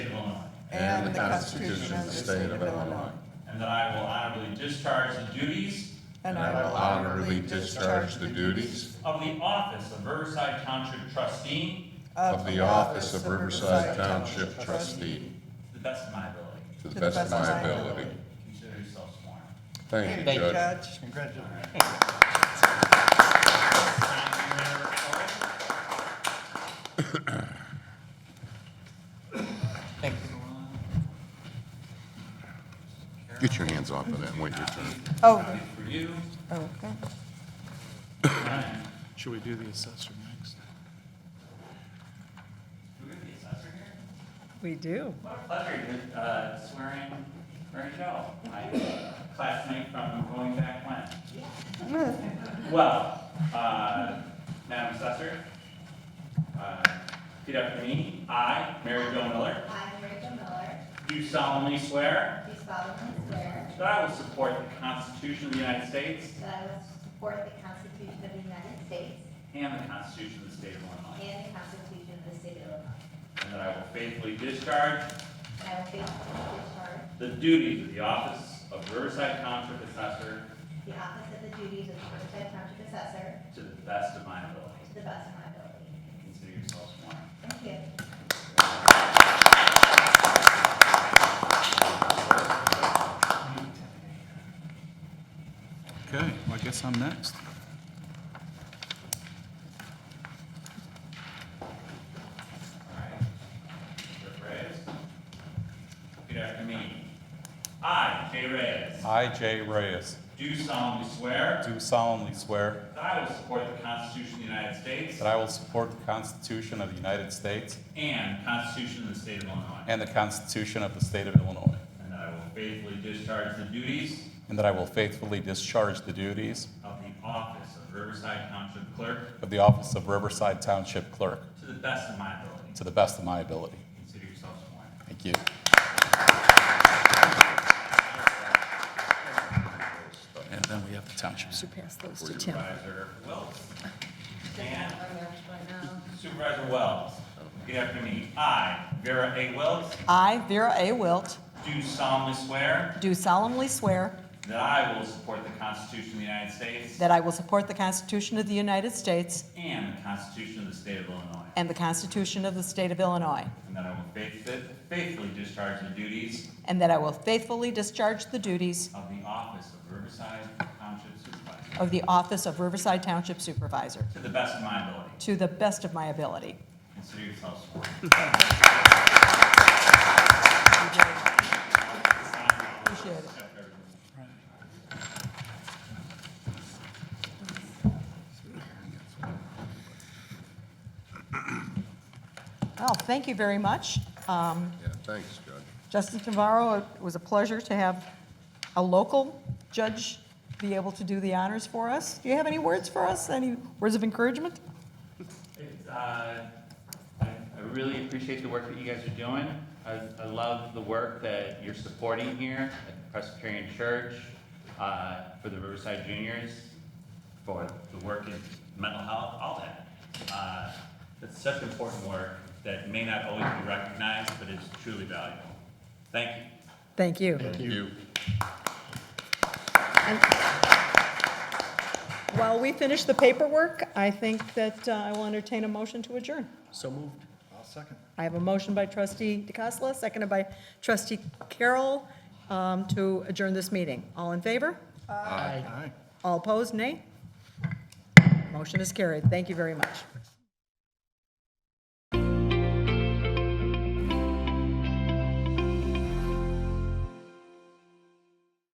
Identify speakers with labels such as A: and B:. A: and the Constitution of the State of Illinois.
B: and that I will honorably discharge the duties
A: And I will honorably discharge the duties
B: of the office of Riverside Township Trustee
A: of the office of Riverside Township Trustee
B: to the best of my ability.
C: to the best of my ability.
B: Consider yourself sworn.
C: Thank you,
A: Thank you,
C: Judge.
A: Judge.
B: Alright. Time to remember to vote.
D: Thank
C: Get your hands off of that and wait your turn.
A: Oh,
B: For you,
A: okay.
B: Ryan.
E: Should we do the assessor next?
B: Do we have the assessor here?
A: We do.
B: What a pleasure to uh, swearing Mary Jo, my uh, classmate from going back when. Well, uh, Madam Assessor, uh, repeat after me. I, Mary Jo Miller,
F: I, Rachel Miller,
B: do solemnly swear
F: do solemnly swear
B: that I will support the Constitution of the United States
F: that I will support the Constitution of the United States
B: and the Constitution of the State of Illinois,
F: and the Constitution of the State of Illinois,
B: and that I will faithfully discharge
F: and I will faithfully discharge
B: the duties of the office of Riverside Township Assessor
F: the office of the duties of Riverside Township Assessor
B: to the best of my ability.
F: to the best of my ability.
B: Consider yourself sworn.
F: Thank you.
E: Okay, well, I guess I'm next.
B: Alright. Rick Reyes. Repeat after me. I, Jay Reyes,
D: I, Jay Reyes,
B: do solemnly swear
D: do solemnly swear
B: that I will support the Constitution of the United States
D: that I will support the Constitution of the United States
B: and the Constitution of the State of Illinois,
D: and the Constitution of the State of Illinois,
B: and that I will faithfully discharge the duties
D: and that I will faithfully discharge the duties
B: of the office of Riverside Township Clerk
D: of the office of Riverside Township Clerk
B: to the best of my ability.
D: to the best of my ability.
B: Consider yourself sworn.
D: Thank you.
E: And then we have the township
A: Should pass those to Tim.
B: Supervisor Wells. And
F: Right now.
B: Supervisor Wells. Repeat after me. I, Vera A. Wells,
G: I, Vera A. Wilt,
B: do solemnly swear
G: do solemnly swear
B: That I will support the Constitution of the United States
G: that I will support the Constitution of the United States
B: and the Constitution of the State of Illinois,
G: and the Constitution of the State of Illinois,
B: and that I will faith- faithfully discharge the duties
G: and that I will faithfully discharge the duties
B: of the office of Riverside Township Supervisor
G: of the office of Riverside Township Supervisor
B: to the best of my ability.
G: to the best of my ability.
B: Consider yourself sworn.
G: Appreciate it. Well, thank you very much. Um,
C: Yeah, thanks, Judge.
G: Justin Navarro, it was a pleasure to have a local judge be able to do the honors for us. Do you have any words for us? Any words of encouragement?
B: It's, uh, I I really appreciate the work that you guys are doing. I I love the work that you're supporting here at Presbyterian Church uh, for the Riverside Juniors, for the work in mental health, all that. Uh, It's such important work that may not always be recognized, but is truly valuable. Thank you.
G: Thank you.
C: Thank you.
G: While we finish the paperwork, I think that uh, I will entertain a motion to adjourn.
E: So moved. I'll second.
G: I have a motion by trustee DeCassola, seconded by trustee Carroll um, to adjourn this meeting. All in favor?
E: Aye.
G: All opposed, nay? Motion is carried. Thank you very much.